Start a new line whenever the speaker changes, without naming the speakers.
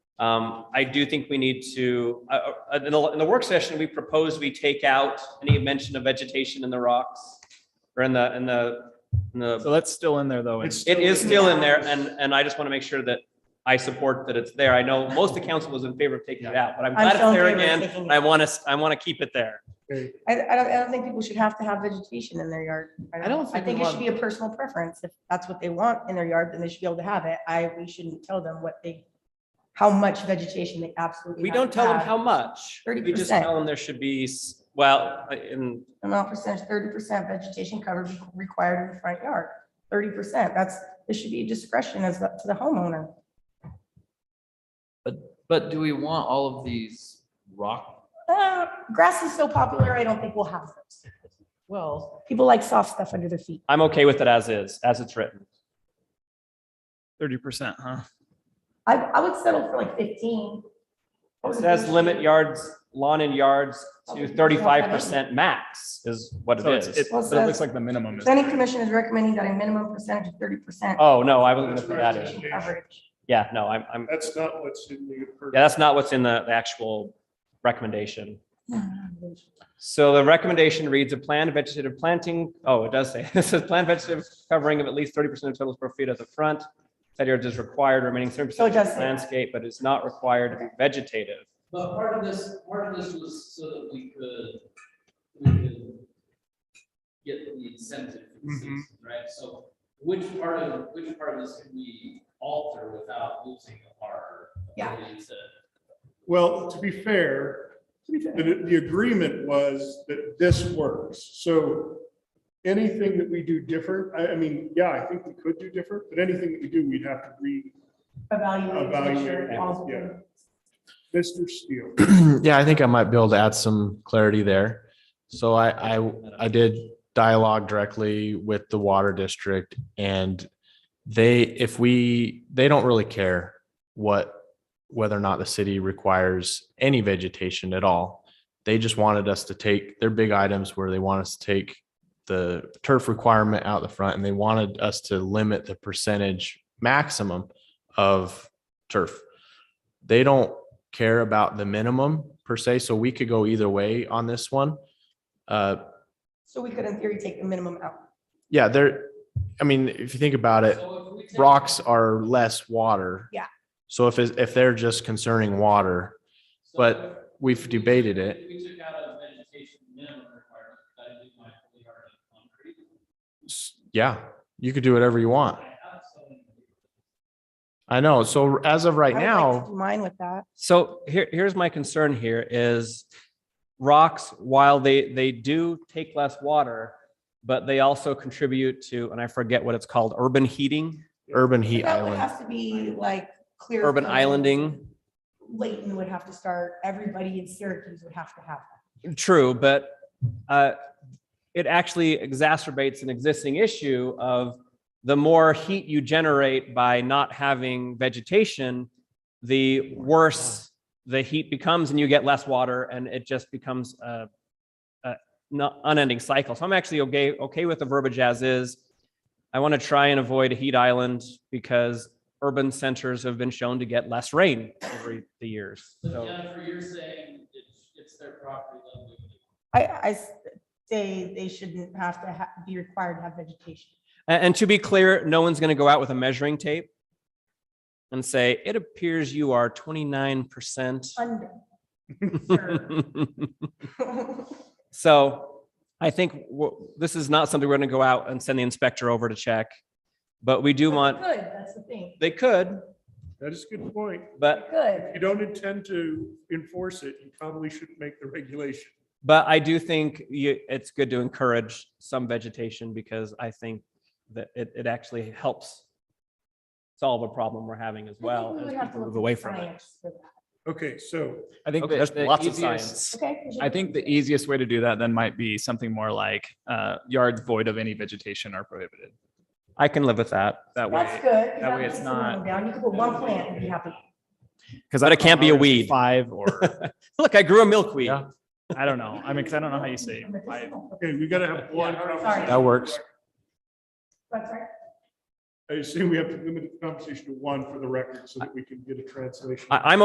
Um, I do think we need to, uh, uh, in the, in the work session, we proposed we take out any mention of vegetation in the rocks or in the, in the, in the,
So that's still in there though. and-
It's-
it is still in there and, and I just want to make sure that I support that it's there. I know most of the council was in favor of taking it out, but I'm
I'm
glad it's
so in
there
favor of
again.
taking it
I want to, I want to keep it there.
I, I don't, I don't think people should have to have vegetation in their yard.
I don't
I
think we
think it should
want-
be a personal preference. If that's what they want in their yard, then they should be able to have it. I, we shouldn't tell them what they, how much vegetation they absolutely.
We
have
don't
to
tell them
have.
how much. We just
30%.
tell them there should be, s- well, I- in
Amount percentage, thirty percent vegetation cover be- required in the front yard. Thirty percent, that's, this should be a discretion as the- to the homeowner.
But do we want all of these rock?
Uh, grass is so popular, I don't think we'll have those.
Well,
People like soft stuff under their feet.
I'm okay with it as is, as it's written.
Thirty percent, huh?
I, I would settle for like fifteen.
It says limit yards, lawn and yards to thirty-five percent max is what
So
it
it's, it,
is.
Well,
but it looks like the minimum is.
Planning commission is recommending that a minimum percentage of thirty percent.
Oh, no, I wasn't gonna put that in.
vegetation coverage.
Yeah, no, I'm, I'm,
That's not what's in the.
yeah, that's not what's in the the actual recommendation. So the recommendation reads a planned vegetative planting, oh, it does say, it says planned vegetative covering of at least thirty percent of total square feet at the front. That yard is required remaining thirty
So it
percent
does say that.
landscape, but is not required to be vegetative.
But part of this, part of this was so that we could, we could get the incentive for the
Mm-hmm.
Mhm.
citizen, right? So which part of, which part of this can we alter without losing our
Yeah.
ability to?
Well, to be fair, the, the agreement was that this works. So anything that we do different, I, I mean, yeah, I think we could do different, but anything that we do, we'd have to read
Evaluate. to make sure it
Evaluate,
falls
yeah.
within-
Mr. Steele.
Yeah, I think I might be able to add some clarity there. So I, I, I did dialogue directly with the water district and they, if we, they don't really care what, whether or not the city requires any vegetation at all. They just wanted us to take their big items where they want us to take the turf requirement out the front and they wanted us to limit the percentage maximum of turf. They don't care about the minimum per se, so we could go either way on this one. Uh,
So we could in theory take the minimum out.
yeah, there, I mean, if you think about it,
So if we take-
rocks are less water.
Yeah.
So if, it's- if they're just concerning water,
so
but
if-
we've
if we took-
debated it.
if We took out a vegetation minimum requirement, that'd be my fully hardened concrete.
s- yeah, you could do whatever you want.
I have some-
I know. So as of right
I would like to
now,
do Mine with that.
So here, here's my concern here is rocks, while they, they do take less water, but they also contribute to, and I forget what it's called, urban heating,
urban
But
heat
That would
island,
have to be like clear.
urban
cut.
islanding.
Layton would have to start, everybody in Syracuse would have to have. that.
True, but uh, it actually exacerbates an existing issue of the more heat you generate by not having vegetation, the worse the heat becomes and you get less water and it just becomes a, a not unending cycle. So I'm actually okay, okay with the verbiage as is. I want to try and avoid a heat island because urban centers have been shown to get less rain over the years.
So
So-
Jennifer, you're saying it's, it's their property level.
I, I s- say they shouldn't have to ha- be required to have vegetation.
A- And, to be clear, no one's going to go out with a measuring tape and say, it appears you are 29%.
Under. Sure.
so I think w- this is not something we're going to go out and send the inspector over to check, but we do want,
Good, that's the thing.
they could,
That is a good point.
but,
Good.
If you don't intend to enforce it, you probably shouldn't make the regulation.
but I do think you, it's good to encourage some vegetation because I think that it, it actually helps solve a problem we're having as well as people move away from it.
Okay, so
I think
Okay,
that
there's
the
lots of
easiest-
science.
Okay.
I think the easiest way to do that then might be something more like, uh, yards void of any vegetation are prohibited.
I can live with that.
That
That's
way,
good. 'cause
that way it's
lets them
not-
go Down, you could put one plant and be happy.
because
But it can't be a weed.
Five or,
Look, I grew a milkweed.
Yeah.
I don't know. I mean, because I don't know how you say five.
Okay, we gotta have one. conversation.
that works.
That's right.
I assume we have to limit the conversation to one for the record so that we can get a translation.
I, I'm